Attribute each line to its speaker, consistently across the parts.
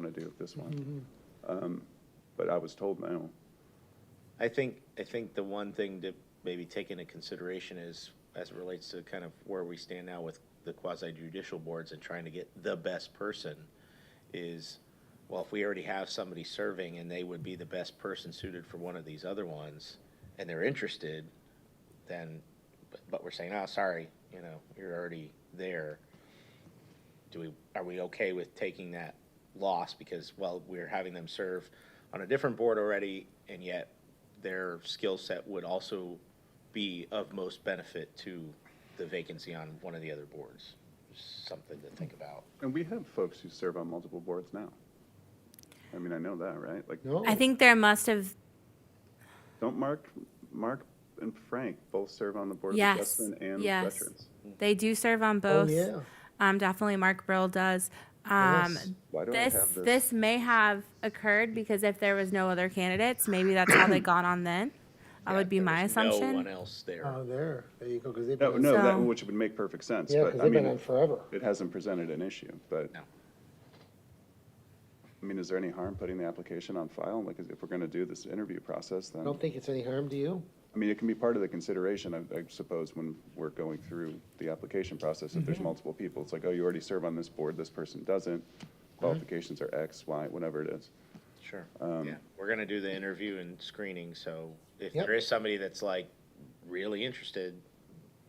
Speaker 1: to do with this one.
Speaker 2: Mm-hmm.
Speaker 1: Um, But I was told no.
Speaker 3: I think, I think the one thing to maybe take into consideration is, as it relates to kind of where we stand now with the quasi judicial boards and trying to get the best person, is, well, if we already have somebody serving and they would be the best person suited for one of these other ones, and they're interested, then, but, but we're saying, oh, sorry, you know, you're already there. Do we, are we okay with taking that loss because, well, we're having them serve on a different board already, and yet their skill set would also be of most benefit to the vacancy on one of the other boards? Something to think about.
Speaker 1: And we have folks who serve on multiple boards now. I mean, I know that, right? Like,
Speaker 2: No?
Speaker 4: I think there must have,
Speaker 1: don't Mark, Mark and Frank both serve on the Board of
Speaker 4: Yes,
Speaker 1: Adjustment and
Speaker 4: yes.
Speaker 1: Veterans?
Speaker 4: they do serve on
Speaker 2: Oh,
Speaker 4: both.
Speaker 2: yeah.
Speaker 4: Um, definitely Mark Brill does. Um,
Speaker 2: Yes.
Speaker 1: Why do I
Speaker 4: this,
Speaker 1: have this?
Speaker 4: this may have occurred because if there was no other candidates, maybe that's how they got on then. That would be
Speaker 3: There
Speaker 4: my
Speaker 3: was No one
Speaker 4: assumption.
Speaker 3: else there.
Speaker 2: Oh, there, there you go, because they've
Speaker 1: No,
Speaker 2: been,
Speaker 1: no,
Speaker 2: on-
Speaker 1: that,
Speaker 4: So-
Speaker 1: which would make perfect sense,
Speaker 2: yeah, because
Speaker 1: but I
Speaker 2: they've been
Speaker 1: mean,
Speaker 2: on forever.
Speaker 1: it hasn't presented an issue, but.
Speaker 3: No.
Speaker 1: I mean, is there any harm putting the application on file? Like, if we're gonna do this interview process,
Speaker 2: I
Speaker 1: then,
Speaker 2: don't think it's any harm to you.
Speaker 1: I mean, it can be part of the consideration, I, I suppose, when we're going through the application process. If there's
Speaker 2: Mm-hmm.
Speaker 1: multiple people, it's like, oh, you already serve on this board, this person doesn't.
Speaker 2: Mm-hmm.
Speaker 1: Qualifications are X, Y, whatever it is.
Speaker 3: Sure. Yeah, we're gonna do the interview and screening, so if
Speaker 2: Yep.
Speaker 3: there is somebody that's like really interested,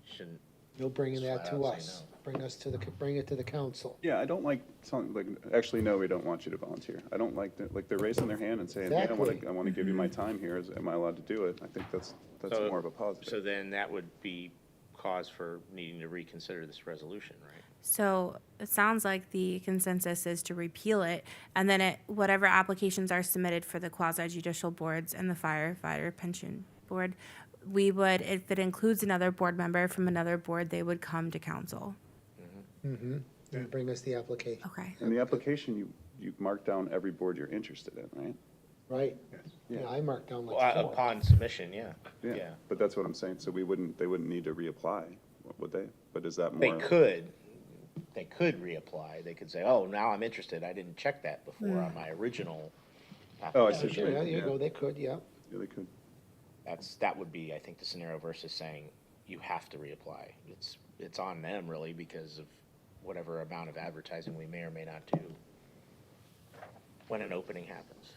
Speaker 3: shouldn't,
Speaker 2: You'll bring
Speaker 3: Just
Speaker 2: that
Speaker 3: flat
Speaker 2: to
Speaker 3: out say
Speaker 2: us. Bring us to the, c- bring it to the council.
Speaker 1: Yeah, I don't like something like, actually, no, we don't want you to volunteer. I don't like, that- like, they're raising their hand and saying, hey, I wanna,
Speaker 2: Exactly. Mm-hmm.
Speaker 1: I wanna give you my time here, is, am I allowed to do it? I think that's, that's
Speaker 3: So-
Speaker 1: more of a
Speaker 3: so
Speaker 1: positive.
Speaker 3: then that would be cause for needing to reconsider this resolution, right?
Speaker 4: So it sounds like the consensus is to repeal it and then it, whatever applications are submitted for the quasi judicial boards and the firefighter pension board, we would, if it includes another board member from another board, they would come to council.
Speaker 2: You bring us the application,
Speaker 4: Okay.
Speaker 1: In the application, you, you mark down every board you're interested in, right?
Speaker 2: right? Yeah, I marked down
Speaker 3: Well, uh,
Speaker 2: like four.
Speaker 3: Upon submission, yeah, yeah.
Speaker 1: But that's what I'm saying, so we wouldn't, they wouldn't need to reapply, would they? But is that
Speaker 3: They
Speaker 1: more?
Speaker 3: could, they could reapply. They could say, oh, now I'm interested. I didn't check that before on my original.
Speaker 1: Oh, I
Speaker 3: application."
Speaker 1: see.
Speaker 2: Yeah,
Speaker 1: what
Speaker 2: sure,
Speaker 1: you
Speaker 2: yeah,
Speaker 1: mean,
Speaker 2: you
Speaker 1: yeah.
Speaker 2: go, they could, yeah.
Speaker 1: Yeah, they could.
Speaker 3: That's, that would be, I think, the scenario versus saying you have to reapply. It's, it's on them really because of whatever amount of advertising we may or may not do when an opening happens.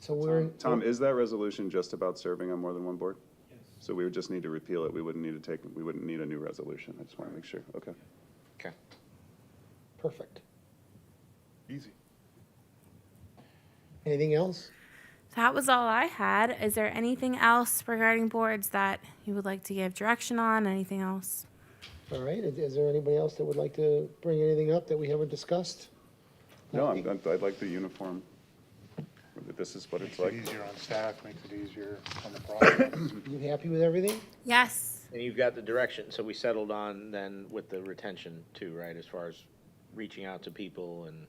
Speaker 2: So we're,
Speaker 1: Tom, is that resolution just about serving on more than one board? Yes. So we would just need to repeal it, we wouldn't need to take, we wouldn't need a new resolution, I just want to make sure, okay.
Speaker 3: Okay.
Speaker 2: perfect.
Speaker 1: Easy.
Speaker 2: Anything else?
Speaker 4: That was all I had. Is there anything else regarding boards that you would like to give direction on? Anything else?
Speaker 2: All right, is, is there anybody else that would like to bring anything up that we haven't discussed?
Speaker 1: No, I'm, I'm- I'd like the uniform, this is what it's
Speaker 5: Makes it
Speaker 1: like.
Speaker 5: easier on staff, makes it easier on the project.
Speaker 2: You happy with everything?
Speaker 4: Yes.
Speaker 3: And you've got the direction, so we settled on then with the retention too, right? As far as reaching out to people and.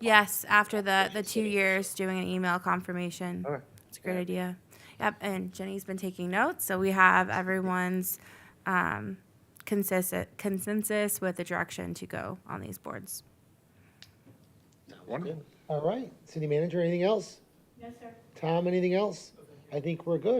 Speaker 4: Yes, after the, the two years, doing an email confirmation.
Speaker 3: Okay.
Speaker 4: It's a great idea. Yep, and Jenny's been taking notes, so we have everyone's um, consensus, consensus with the direction to go on these boards.
Speaker 3: Wonderful.
Speaker 2: All right, city manager, anything else? Yes, sir. Tom, anything else? I think we're good.